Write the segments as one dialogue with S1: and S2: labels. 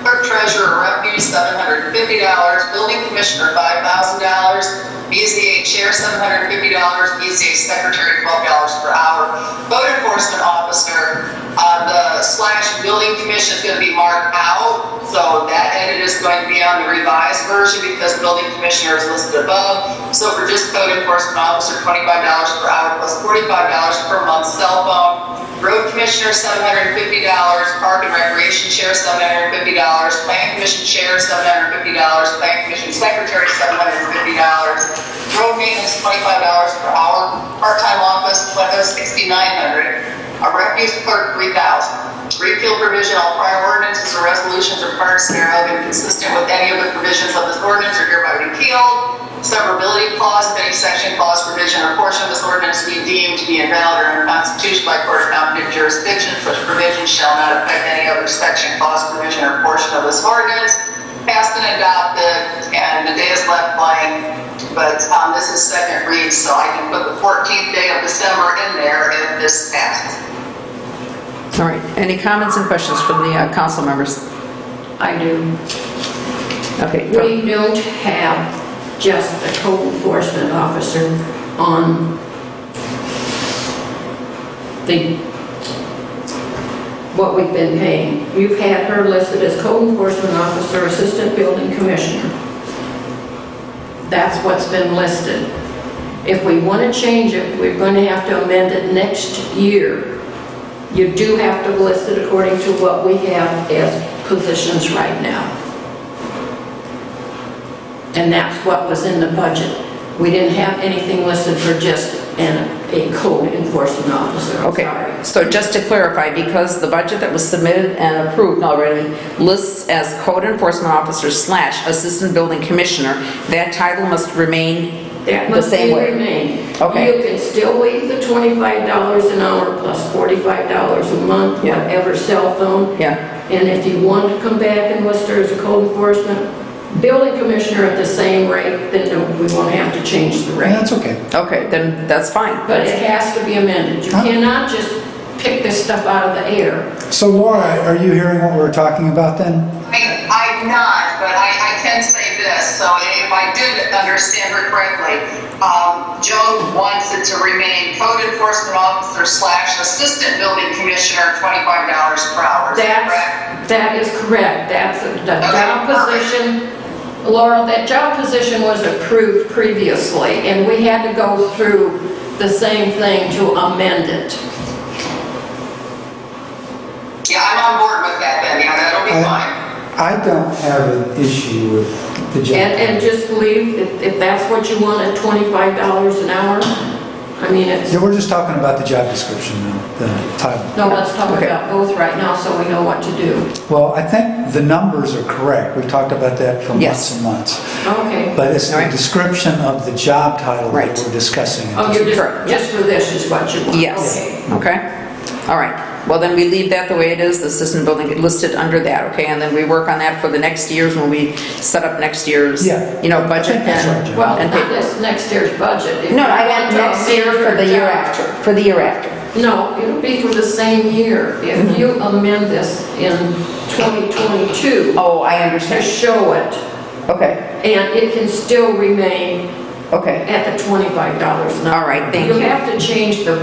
S1: clerk treasurer revenue, seven hundred and fifty dollars, building commissioner, five thousand dollars, BZA chair, seven hundred and fifty dollars, BZA secretary, twelve dollars per hour. Code enforcement officer, uh, the slash building commission is gonna be marked out, so that edit is going to be on the revised version because building commissioner is listed above. So for just code enforcement officer, twenty-five dollars per hour plus forty-five dollars per month cell phone. Road Commissioner, seven hundred and fifty dollars, Park and Recreation Chair, seven hundred and fifty dollars, Plan Commission Chair, seven hundred and fifty dollars, Plan Commission Secretary, seven hundred and fifty dollars, Road Maintenance, twenty-five dollars per hour, Part-Time Office, sixty-nine hundred, a Refuse Clerk, three thousand. Repeal provision, all prior ordinances or resolutions or parts thereof inconsistent with any of the provisions of this ordinance are hereby repealed. Severability clause, if any section, clause, provision, or portion of this ordinance be deemed to be invalid or unconstitutional by court of competent jurisdiction, such provision shall not affect any other section, clause, provision, or portion of this ordinance. Passed and adopted, and the day is left blank, but um, this is second read, so I can put the 14th day of December in there if this passes.
S2: All right, any comments and questions from the uh, council members?
S3: I do.
S2: Okay, go.
S3: We don't have just a code enforcement officer on the, what we've been paying. You've had her listed as code enforcement officer, assistant building commissioner. That's what's been listed. If we want to change it, we're going to have to amend it next year. You do have to list it according to what we have as positions right now. And that's what was in the budget. We didn't have anything listed for just an, a code enforcement officer, I'm sorry.
S2: okay, so just to clarify, because the budget that was submitted and approved already lists as code enforcement officer slash assistant building commissioner, that title must remain
S3: That
S2: the
S3: must be
S2: same way.
S3: remained.
S2: Okay.
S3: You can still leave the twenty-five dollars an hour plus forty-five dollars a month,
S2: Yeah.
S3: whatever cell phone.
S2: Yeah,
S3: And if you want to come back and list her as a code enforcement building commissioner at the same rate, then no- we won't have to change the rate.
S4: That's okay.
S2: okay, then that's fine.
S3: But it has to be amended. You
S4: Huh?
S3: cannot just pick this stuff out of the air.
S4: So Laura, are you hearing what we're talking about then?
S1: I, I'm not, but I, I can say this, so if I did understand her correctly, um, Joan wants it to remain code enforcement officer slash assistant building commissioner, twenty-five dollars per hour, is that correct?
S3: That's, that is correct. That's a- the job position. Laurel, that job position was approved previously, and we had to go through the same thing to amend it.
S1: Yeah, I'm on board with that then, yeah, that'll be fine.
S4: I I don't have an issue with the job.
S3: And, and just leave, if, if that's what you want, at twenty-five dollars an hour. I mean, it's,
S4: Yeah, we're just talking about the job description now, the title.
S3: no, let's talk
S2: Okay.
S3: about both right now so we know what to do.
S4: Well, I think the numbers are correct. We've talked about that for
S2: Yes.
S4: months and months.
S3: Okay.
S4: But it's the
S2: Alright.
S4: description of the job title
S2: Right.
S4: that we're discussing.
S3: Oh, you're
S2: Correct.
S3: just, just for this is what you want?
S2: Yes,
S3: Okay.
S2: okay, all right. Well, then we leave that the way it is, the assistant building listed under that, okay? And then we work on that for the next years when we set up next year's,
S4: Yeah.
S2: you know, budget
S4: think that's right,
S2: and
S4: Jen.
S3: Well,
S2: and
S3: not
S2: paper.
S3: this next year's budget. If
S2: No,
S3: you
S2: I
S3: want
S2: meant
S3: to
S2: next year
S3: amend
S2: for
S3: your
S2: the year
S3: job-
S2: after, for the year after.
S3: No, it'll be for the same year.
S2: Mm-hmm.
S3: If you amend this in 2022
S2: Oh, I
S3: to
S2: understand.
S3: show it,
S2: Okay,
S3: and it can still remain
S2: okay,
S3: at the $25 an hour.
S2: All right, thank you.
S3: You have to change the,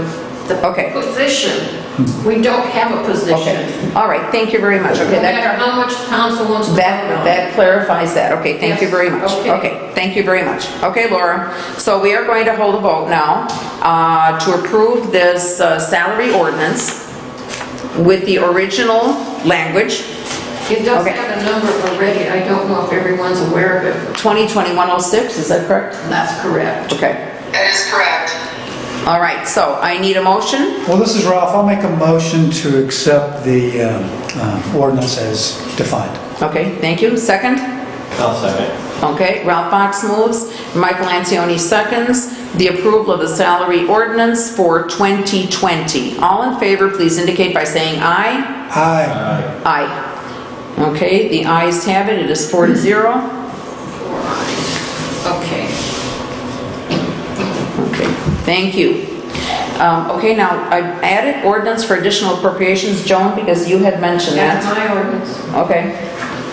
S3: the
S2: Okay.
S3: position. We don't have a position.
S2: okay. All right, thank you very much.
S3: No
S2: Okay, that,
S3: matter how much council wants to vote
S2: that,
S3: on it.
S2: that clarifies that. Okay, thank you
S3: Yes,
S2: very much.
S3: okay.
S2: Okay, thank you very much. Okay, Laura, so we are going to hold a vote now uh, to approve this uh, salary ordinance with the original language,
S3: It does
S2: okay.
S3: have a number already. I don't know if everyone's aware of it.
S2: 202106, is that correct?
S3: That's correct.
S2: Okay,
S1: That is correct.
S2: all right, so I need a motion.
S4: Well, this is Ralph. I'll make a motion to accept the um, uh, ordinance as defined.
S2: Okay, thank you. Second?
S5: I'll second.
S2: Okay, Ralph Box moves, Michael Antoni seconds, the approval of the salary ordinance for 2020. All in favor, please indicate by saying aye.
S4: Aye.
S2: Aye. Okay, the ayes have it, it is four to zero.
S3: Okay.
S2: Okay, thank you. Um, Okay, now, I added ordinance for additional appropriations, Joan, because you had mentioned
S3: That's
S2: that.
S3: my ordinance.
S2: Okay,